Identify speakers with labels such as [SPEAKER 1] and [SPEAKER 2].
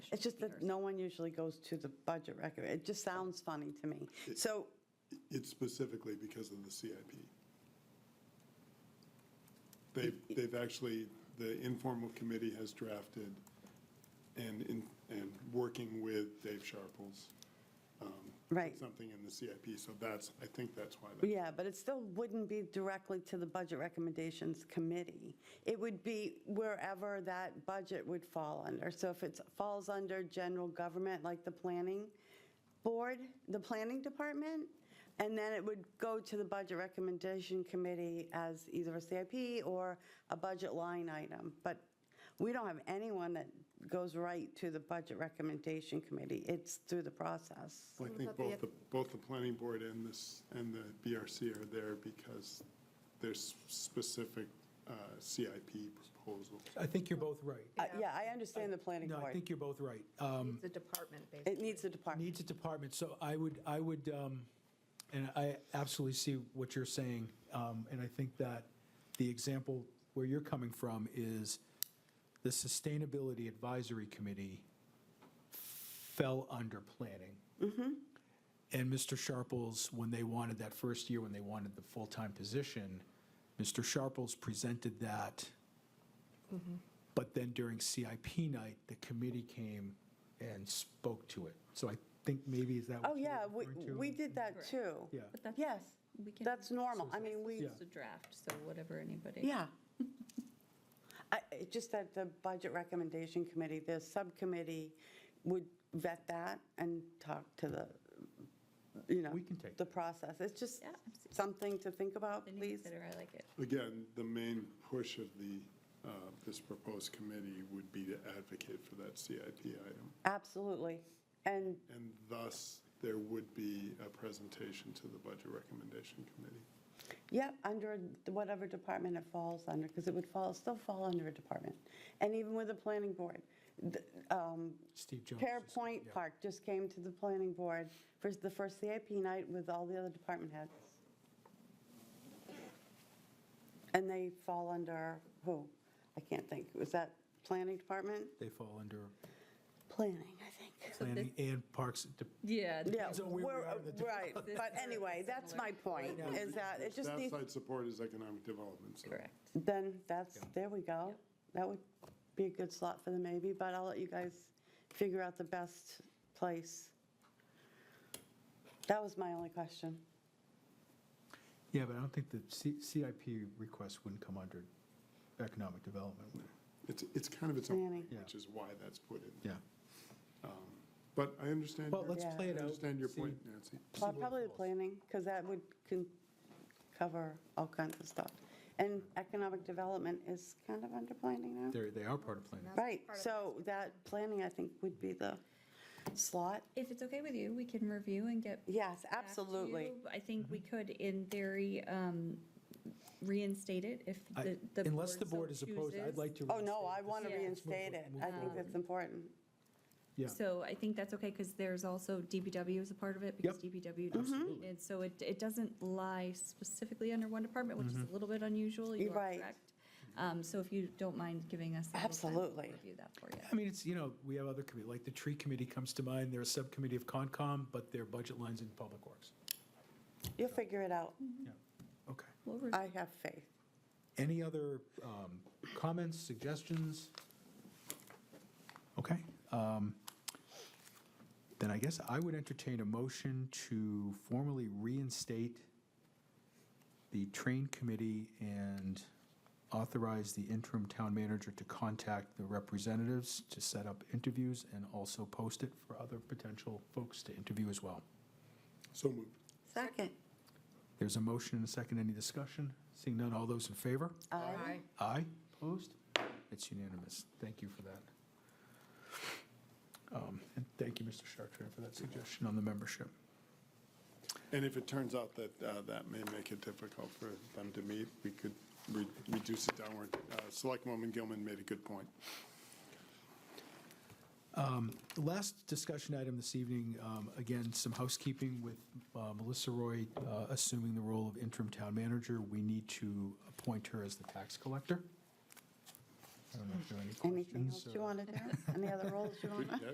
[SPEAKER 1] It's just that no one usually goes to the budget record. It just sounds funny to me. So,
[SPEAKER 2] It's specifically because of the CIP. They've, they've actually, the informal committee has drafted and, in- and working with Dave Sharples,
[SPEAKER 1] right,
[SPEAKER 2] something in the CIP. So that's, I think that's why. that-
[SPEAKER 1] yeah, but it still wouldn't be directly to the Budget Recommendations Committee. It would be wherever that budget would fall under. So if it falls under general government, like the planning board, the planning department, and then it would go to the Budget Recommendation Committee as either a CIP or a budget line item. But We don't have anyone that goes right to the Budget Recommendation Committee. It's through the process.
[SPEAKER 2] I think both, the both the planning board and this, and the BRC are there because there's specific uh, CIP proposals.
[SPEAKER 3] I think you're both right.
[SPEAKER 1] Uh, Yeah, I understand the planning
[SPEAKER 3] No, I
[SPEAKER 1] board.
[SPEAKER 3] think you're both right. Uh,
[SPEAKER 4] The department, basically.
[SPEAKER 1] It needs a department.
[SPEAKER 3] Needs a department, so I would, I would, um, and I absolutely see what you're saying, um, and I think that the example where you're coming from is the Sustainability Advisory Committee fell under planning. And Mr. Sharples, when they wanted that first year, when they wanted the full-time position, Mr. Sharples presented that.
[SPEAKER 1] Mm-hmm.
[SPEAKER 3] But then during CIP night, the committee came and spoke to it. So I think maybe is that
[SPEAKER 1] Oh,
[SPEAKER 3] what you're
[SPEAKER 1] yeah, we,
[SPEAKER 3] referring to?
[SPEAKER 1] we did that too.
[SPEAKER 3] Yeah.
[SPEAKER 5] But that's-
[SPEAKER 1] Yes,
[SPEAKER 5] we can-
[SPEAKER 1] that's normal. I mean, we,
[SPEAKER 3] Yeah.
[SPEAKER 5] It's a draft, so whatever anybody.
[SPEAKER 1] yeah. I- it Just that the Budget Recommendation Committee, the subcommittee would vet that and talk to the, you know.
[SPEAKER 3] We can take
[SPEAKER 1] The process. It's just
[SPEAKER 5] Yeah, absolutely.
[SPEAKER 1] something to think about,
[SPEAKER 5] Then you
[SPEAKER 1] please.
[SPEAKER 5] consider, I like it.
[SPEAKER 2] Again, the main push of the, uh, this proposed committee would be to advocate for that CIP item.
[SPEAKER 1] Absolutely. And
[SPEAKER 2] And thus, there would be a presentation to the Budget Recommendation Committee.
[SPEAKER 1] Yeah, under whatever department it falls under, because it would fall, still fall under a department. And even with the planning board, the, um,
[SPEAKER 3] Steve Jones.
[SPEAKER 1] Pear Point
[SPEAKER 3] Yeah.
[SPEAKER 1] Park just came to the planning board for the first CIP night with all the other department heads. And they fall under who? I can't think. Was that planning department?
[SPEAKER 3] They fall under
[SPEAKER 1] Planning, I think.
[SPEAKER 3] planning and parks, de-
[SPEAKER 5] Yeah.
[SPEAKER 1] Yeah,
[SPEAKER 3] So we- we
[SPEAKER 1] we're-
[SPEAKER 3] are the-
[SPEAKER 1] right. But anyway, that's my point, is that it just
[SPEAKER 2] Staff
[SPEAKER 1] needs
[SPEAKER 2] side support is economic development, so.
[SPEAKER 5] Correct.
[SPEAKER 1] Then that's, there we go. That would be a good slot for the maybe, but I'll let you guys figure out the best place. That was my only question.
[SPEAKER 3] yeah, but I don't think the C- CIP request wouldn't come under economic development. would it?
[SPEAKER 2] It's, it's kind of its own,
[SPEAKER 1] Planning.
[SPEAKER 2] thing, which is why that's put in.
[SPEAKER 3] Yeah.
[SPEAKER 2] But I understand,
[SPEAKER 3] Well,
[SPEAKER 2] your-
[SPEAKER 3] let's
[SPEAKER 1] Yeah.
[SPEAKER 3] play
[SPEAKER 2] I
[SPEAKER 3] it out.
[SPEAKER 2] understand your
[SPEAKER 3] see-
[SPEAKER 2] point, Nancy.
[SPEAKER 1] Well,
[SPEAKER 3] what
[SPEAKER 1] Probably the
[SPEAKER 3] falls.
[SPEAKER 1] planning, because that would con- cover all kinds of stuff. And economic development is kind of under planning now.
[SPEAKER 3] They're, they are part of planning.
[SPEAKER 1] Right, so that planning, I think, would be the slot.
[SPEAKER 5] If it's okay with you, we can review and get.
[SPEAKER 1] Yes,
[SPEAKER 5] back to
[SPEAKER 1] absolutely.
[SPEAKER 5] you. I think we
[SPEAKER 3] Mm-hmm.
[SPEAKER 5] could, in theory, um, reinstate it if
[SPEAKER 3] I-
[SPEAKER 5] the.
[SPEAKER 3] Unless the
[SPEAKER 5] so
[SPEAKER 3] board is opposed, I'd
[SPEAKER 5] chooses.
[SPEAKER 3] like to.
[SPEAKER 1] Oh, no, I
[SPEAKER 3] reinstate
[SPEAKER 1] want to
[SPEAKER 5] Yeah.
[SPEAKER 1] reinstate it. I
[SPEAKER 5] Um,
[SPEAKER 1] think that's important.
[SPEAKER 3] this. Yeah,
[SPEAKER 5] So I think that's okay, because there's also DBW is a part of it, because
[SPEAKER 3] Yep.
[SPEAKER 5] DBW
[SPEAKER 1] Mm-hmm.
[SPEAKER 5] does
[SPEAKER 3] Absolutely.
[SPEAKER 5] And so it, it doesn't lie specifically under one department, which is
[SPEAKER 3] Mm-hmm.
[SPEAKER 5] a little bit unusual. You
[SPEAKER 1] You're right.
[SPEAKER 5] are correct. Um, So if you don't mind giving us. a little time, we'll
[SPEAKER 1] Absolutely.
[SPEAKER 5] Review that for you.
[SPEAKER 3] I mean, it's, you know, we have other committee, like the tree committee comes to mind, they're a subcommittee of Concom, but their budget lines in Public Works.
[SPEAKER 1] You'll figure it out.
[SPEAKER 3] Yeah, okay.
[SPEAKER 5] We'll review.
[SPEAKER 1] I have faith.
[SPEAKER 3] Any other um, comments, suggestions? Okay. um, Then I guess I would entertain a motion to formally reinstate the train committee and authorize the interim town manager to contact the representatives to set up interviews and also post it for other potential folks to interview as well.
[SPEAKER 2] So moved.
[SPEAKER 1] Second.
[SPEAKER 3] There's a motion and a second. Any discussion? Seeing none, all those in favor?
[SPEAKER 4] Aye.
[SPEAKER 3] Aye. Opposed? It's unanimous. Thank you for that. Um, And thank you, Mr. Chartrand, for that suggestion on the membership.
[SPEAKER 2] And if it turns out that uh, that may make it difficult for them to meet, we could re- reduce it downward. Uh, Selectwoman Gilman made a good point.
[SPEAKER 3] The last discussion item this evening, um, again, some housekeeping with uh, Melissa Roy uh, assuming the role of interim town manager. We need to appoint her as the tax collector. I don't know if there are any
[SPEAKER 1] Anything
[SPEAKER 3] questions
[SPEAKER 1] else
[SPEAKER 3] or-
[SPEAKER 1] you want to do? Any other roles you want to?